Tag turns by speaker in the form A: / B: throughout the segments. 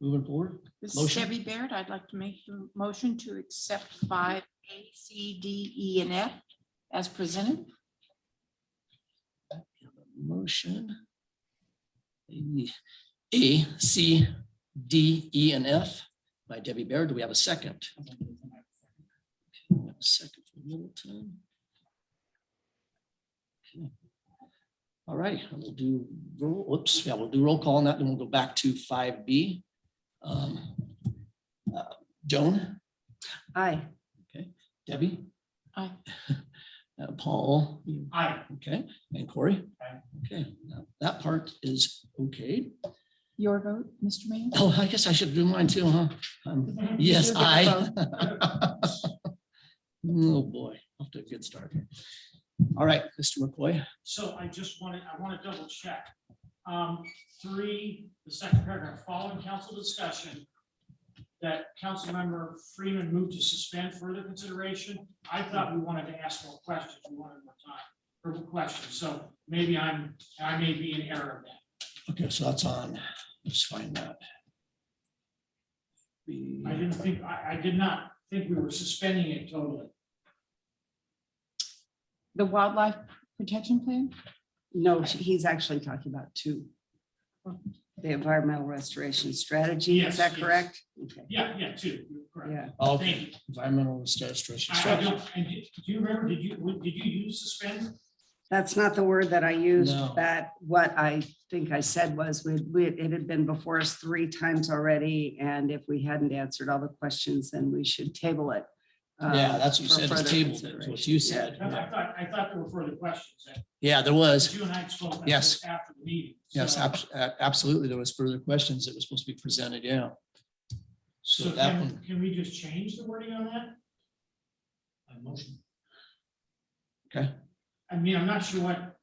A: Moving forward,
B: This is
A: Motion.
B: Debbie Baird. I'd like to make a motion to accept five A, C, D, E, and F as presented.
A: motion. A, C, D, E, and F by Debbie Baird. Do we have a second? We have a Second from Littleton. Okay. All right, I will do, roll. whoops, yeah, we'll do roll call on that, then we'll go back to five B. Um, uh, Joan,
B: Aye.
A: Debbie?
B: Aye.
A: Uh, Paul? you-
C: Aye.
A: Okay, and Corey?
C: Aye.
A: Okay, now that part is okay.
B: Your vote, Mr. Mayor?
A: Oh, I guess I should do mine too, huh? Um,
C: Mm-hmm.
A: Yes,
B: You'll get
A: I.
B: a
A: Oh, boy, off to a good start here. All right, Mr. McCoy,
C: So I just wanted, I want to double check. Um, three, the second paragraph, following council discussion, that council member Freeman moved to suspend further consideration. I thought we wanted to ask more questions. We wanted more time for questions. So maybe I'm, I may be in error of that.
A: okay, so that's on, let's find that. The-
C: I didn't think, I, I did not think we were suspending it totally.
B: The wildlife protection plan?
D: No, he's actually talking about two. The environmental restoration strategy,
C: Yes,
D: is that
C: yes.
D: correct? Okay,
C: Yeah, yeah, two, you're correct.
D: Yeah,
A: Okay,
C: Thank you.
A: environmental restoration
C: I, I
A: strategy.
C: don't, and did do you remember, did you, would- did you use suspend?
D: that's not the word that I used,
A: No.
D: that, what I think I said was, we, we, it had been before us three times already, and if we hadn't answered all the questions, then we should table it. uh,
A: Yeah, that's what you
D: for
A: said,
D: further
A: it's tabled, that's what you
D: consideration.
A: said.
C: I
A: Yeah.
C: thought, I thought there were further questions. that-
A: Yeah, there was.
C: You and I spoke about
A: Yes.
C: this after the meeting.
A: Yes,
C: so-
A: abs- a- absolutely. There was further questions that was supposed to be presented, yeah. So
C: So
A: that
C: can,
A: one,
C: can we just change the wording on that? A motion.
A: Okay.
C: I mean, I'm not sure what,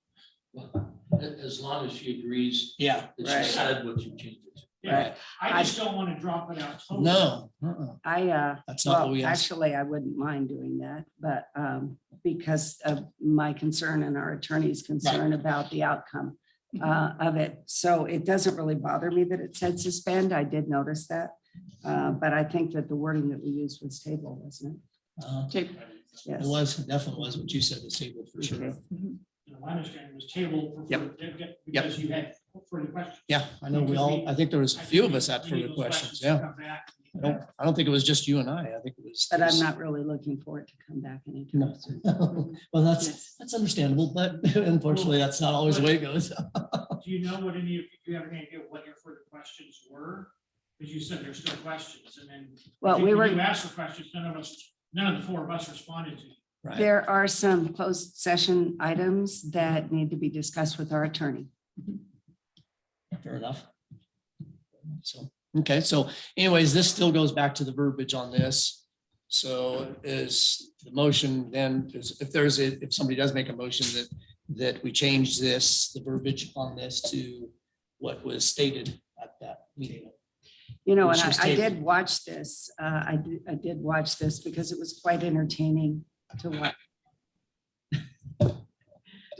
E: Well, a- As long as she agrees
A: yeah,
E: that
D: Right.
E: she said what you changed it to.
C: yeah, I
D: I-
C: just don't want to drop it out. totally.
A: no, uh-uh,
D: I, uh,
A: that's not what
D: Well,
A: we asked.
D: actually, I wouldn't mind doing that, but um, because of my concern and our attorney's concern about the outcome
A: Mm-hmm.
D: uh, of it. So it doesn't really bother me that it said suspend. I did notice that. Uh, But I think that the wording that we used was table, wasn't
A: Uh,
B: Okay.
D: it?
A: It
D: Yes.
A: was, it definitely was what you said, the table for sure.
C: You know, My understanding was table for,
A: Yep.
C: further- because you had further questions.
A: Yeah, I know we all, I think there was a
C: I
A: few of
C: think
A: us had
C: we need
A: further
C: those
A: questions,
C: to
A: yeah.
C: come back.
A: I don't, I don't think it was just you and I. I think it was.
D: But I'm not really looking for it to come back anytime
A: No.
D: soon.
A: Well, that's, that's understandable, but unfortunately, that's not always the way it goes.
C: Do you know what any, of do you have any idea what your further questions were? Because you said there's still questions and then. I
D: Well,
C: think
D: we
C: when
D: were.
C: You asked the questions, none of us, none of the four of us responded to.
A: Right,
D: There are some closed session items that need to be discussed with our attorney.
A: fair enough. So, okay, so anyways, this still goes back to the verbiage on this. So is the motion then, is- if there's, a if somebody does make a motion that, that we change this, the verbiage on this to what was stated at that meeting.
D: You know,
A: Which
D: and
A: was
D: I, I
A: tabled.
D: did watch this, uh, I did, I did watch this because it was quite entertaining to watch.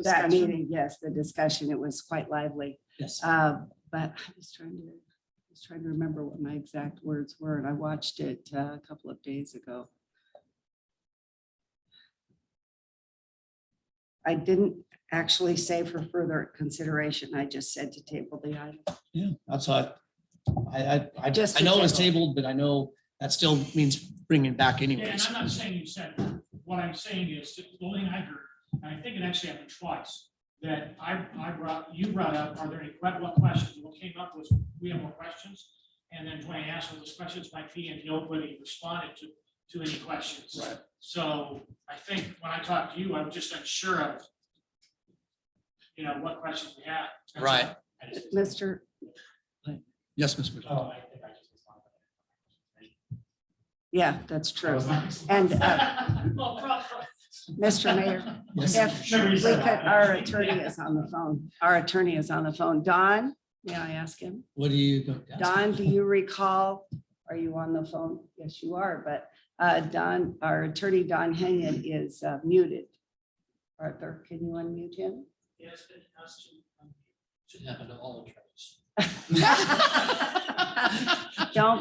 D: That meeting, yes, the discussion, it was quite lively,
A: Yes.
D: uh, but I was trying to, I was trying to remember what my exact words were, and I watched it uh, a couple of days ago. I didn't actually say for further consideration, I just said to table the item.
A: Yeah, that's what I, I, I
D: Just
A: just, I
D: to
A: know it was
D: table.
A: tabled, but I know that still means bringing it back
C: Yeah, And
A: anyways.
C: I'm not saying you said, that. what I'm saying is, that the only thing I heard, and I think it actually happened twice, that I, I brought, you brought up, are there any, que- what questions? What came up was, we have more questions. And then Dwayne asked what those questions might be, and nobody responded to, to any questions.
A: Right.
C: So I think when I talked to you, I'm just unsure of, you know, what questions we have. That's
A: Right.
C: all. I just-
D: Mr.
A: Yes, Ms. McDonald.
C: Oh, I think I just responded.
D: Yeah, that's true. And,
C: Well, probably.
D: Mr. Mayor,
A: Yes.
D: if
C: Sure,
D: we
C: you
D: could,
C: said that.
D: our attorney is on the phone. Our attorney is on the phone. Don, may I ask him?
A: What do you? go- that's-
D: Don, do you recall? Are you on the phone? Yes, you are, but uh, Don, our attorney, Don Henyon is uh, muted. Arthur, can you unmute him?
C: Yes, it has to.
E: Should happen to all attorneys.
D: Don't